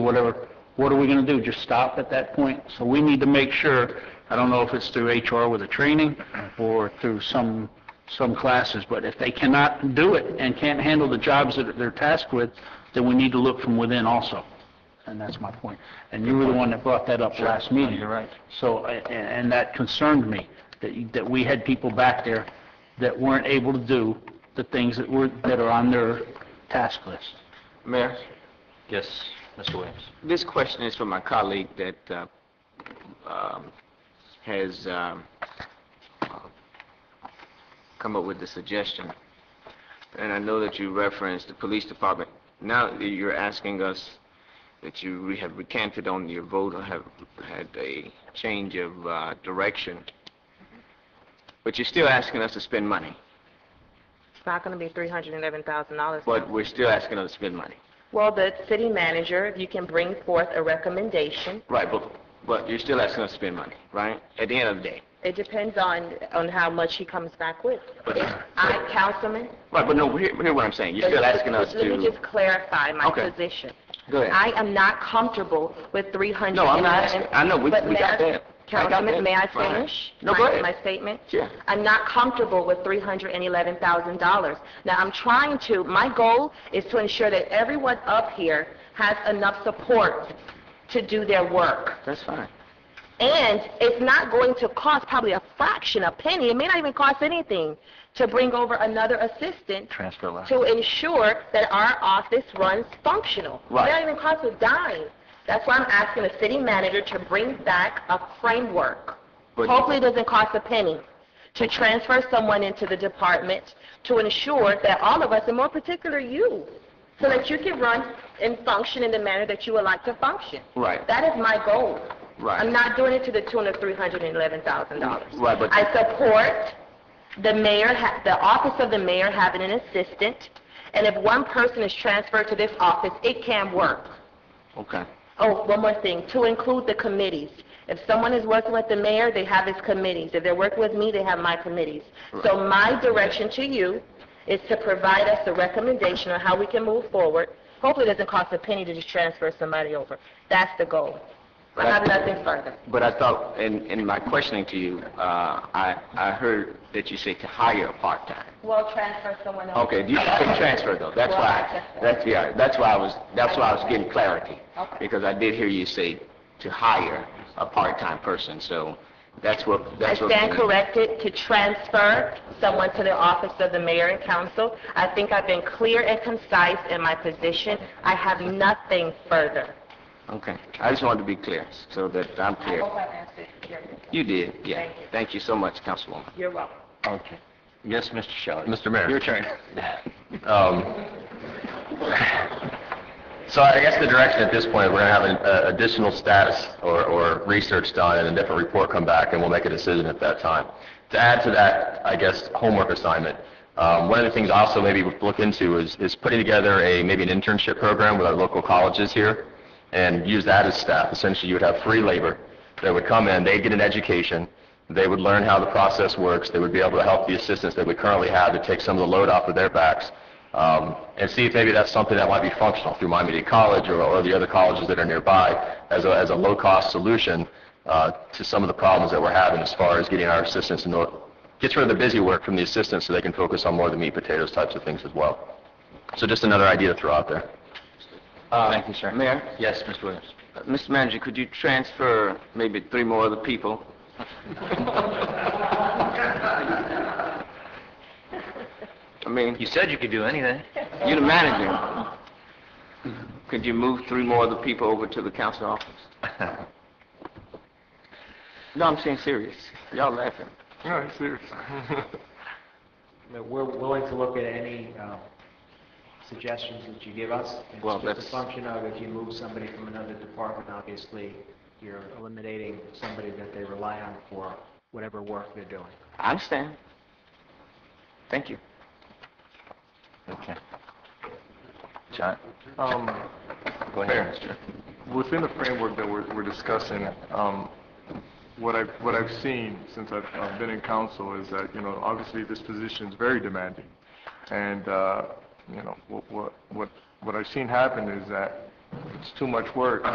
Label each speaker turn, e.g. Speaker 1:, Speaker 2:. Speaker 1: whatever, what are we going to do? Just stop at that point? So we need to make sure, I don't know if it's through HR with a training or through some, some classes, but if they cannot do it and can't handle the jobs that they're tasked with, then we need to look from within also. And that's my point. And you were the one that brought that up last meeting.
Speaker 2: you're right.
Speaker 1: So, a- a- and that concerned me, that, you- that we had people back there that weren't able to do the things that were, that are on their task list.
Speaker 2: Mayor,
Speaker 3: Yes, Mr. Williams.
Speaker 2: this question is from my colleague that uh, um, has um, come up with the suggestion. And I know that you referenced the police department. Now that you're asking us that you re- have recanted on your vote or have had a change of uh, direction, but you're still asking us to spend money.
Speaker 4: It's not going to be $311,000.
Speaker 2: But we're still asking us to spend money.
Speaker 4: Well, the city manager, if you can bring forth a recommendation,
Speaker 2: Right, but, but you're still asking us to spend money, right? At the end of the day.
Speaker 4: it depends on, on how much he comes back with.
Speaker 2: But-
Speaker 4: If I, Councilman,
Speaker 2: Right, but no, hear, hear what I'm saying. You're still asking us
Speaker 4: let me
Speaker 2: to,
Speaker 4: just clarify my
Speaker 2: Okay.
Speaker 4: position.
Speaker 2: go ahead.
Speaker 4: I am not comfortable with $311,000.
Speaker 2: No, I'm not asking, I know, we,
Speaker 4: But
Speaker 2: we got
Speaker 4: Mayor-
Speaker 2: that. I got that.
Speaker 4: Councilman, may I
Speaker 2: Right.
Speaker 4: finish?
Speaker 2: No,
Speaker 4: my-
Speaker 2: go ahead.
Speaker 4: My statement?
Speaker 2: Yeah.
Speaker 4: I'm not comfortable with $311,000. Now, I'm trying to, my goal is to ensure that everyone up here has enough support to do their work.
Speaker 2: That's fine.
Speaker 4: And it's not going to cost probably a fraction, a penny, it may not even cost anything, to bring over another assistant
Speaker 3: Transfer left.
Speaker 4: to ensure that our office runs functional. It may
Speaker 2: Right.
Speaker 4: not even cost a dime. That's why I'm asking the city manager to bring back a framework.
Speaker 2: But-
Speaker 4: Hopefully, it doesn't cost a penny to transfer someone into the department to ensure that all of us, and more particular you, so that you can run and function in the manner that you would like to function.
Speaker 2: Right.
Speaker 4: That is my goal.
Speaker 2: Right.
Speaker 4: I'm not doing it to the tune of $311,000.
Speaker 2: Right, but-
Speaker 4: I support the mayor, ha- the office of the mayor having an assistant, and if one person is transferred to this office, it can work.
Speaker 2: Okay.
Speaker 4: Oh, one more thing, to include the committees. If someone is working with the mayor, they have his committees. If they're working with me, they have my committees. So my direction to you is to provide us a recommendation on how we can move forward. Hopefully, it doesn't cost a penny to just transfer somebody over. That's the goal. I have nothing further.
Speaker 2: But I thought, in, in my questioning to you, uh, I, I heard that you said to hire a part-time.
Speaker 4: Well, transfer someone over.
Speaker 2: Okay, you can transfer though, that's why, that's, yeah, that's why I was, that's why I was getting clarity.
Speaker 4: Okay.
Speaker 2: Because I did hear you say to hire a part-time person, so that's what,
Speaker 4: I
Speaker 2: that's what.
Speaker 4: stand corrected to transfer someone to the office of the mayor and council. I think I've been clear and concise in my position. I have nothing further.
Speaker 2: Okay, I just wanted to be clear, so that I'm clear. You did, yeah.
Speaker 4: Thank you.
Speaker 2: Thank you so much, Councilwoman.
Speaker 4: You're welcome.
Speaker 3: Okay. Yes, Mr. Shelley.
Speaker 5: Mr. Mayor.
Speaker 3: Your turn. Uh,
Speaker 5: Um, So I guess the direction at this point, we're going to have an uh, additional status or- or research done and a different report come back, and we'll make a decision at that time. To add to that, I guess, homework assignment, um, one of the things also maybe we look into is is putting together a, maybe an internship program with our local colleges here and use that as staff. Essentially, you would have free labor that would come in, they'd get an education, they would learn how the process works, they would be able to help the assistants that we currently have to take some of the load off of their backs, um, and see if maybe that's something that might be functional through Miami Dade College or, or the other colleges that are nearby as a, as a low-cost solution uh, to some of the problems that we're having as far as getting our assistants, in order- gets rid of the busy work from the assistants so they can focus on more of the meat potatoes types of things as well. So just another idea to throw out there.
Speaker 3: Thank you, sir.
Speaker 2: Mayor,
Speaker 3: Yes, Mr. Williams.
Speaker 2: uh, Mr. Manager, could you transfer maybe three more other people? I mean,
Speaker 3: You said you could do anything.
Speaker 2: you're the manager. Could you move three more other people over to the council office? No, I'm saying serious. Y'all laughing.
Speaker 6: that we're willing to look at any um, suggestions that you give us. It's
Speaker 2: Well,
Speaker 6: just
Speaker 2: that's-
Speaker 6: a function of if you move somebody from another department, obviously, you're eliminating somebody that they rely on for whatever work they're doing.
Speaker 2: I understand. Thank you.
Speaker 3: Okay. John?
Speaker 7: Um,
Speaker 3: Go ahead, Mr.
Speaker 7: Within the framework that we're we're discussing, um, what I've what I've seen since I've I've been in council is that, you know, obviously this position is very demanding. And, uh, you know, what- what what what I've seen happen is that it's too much work.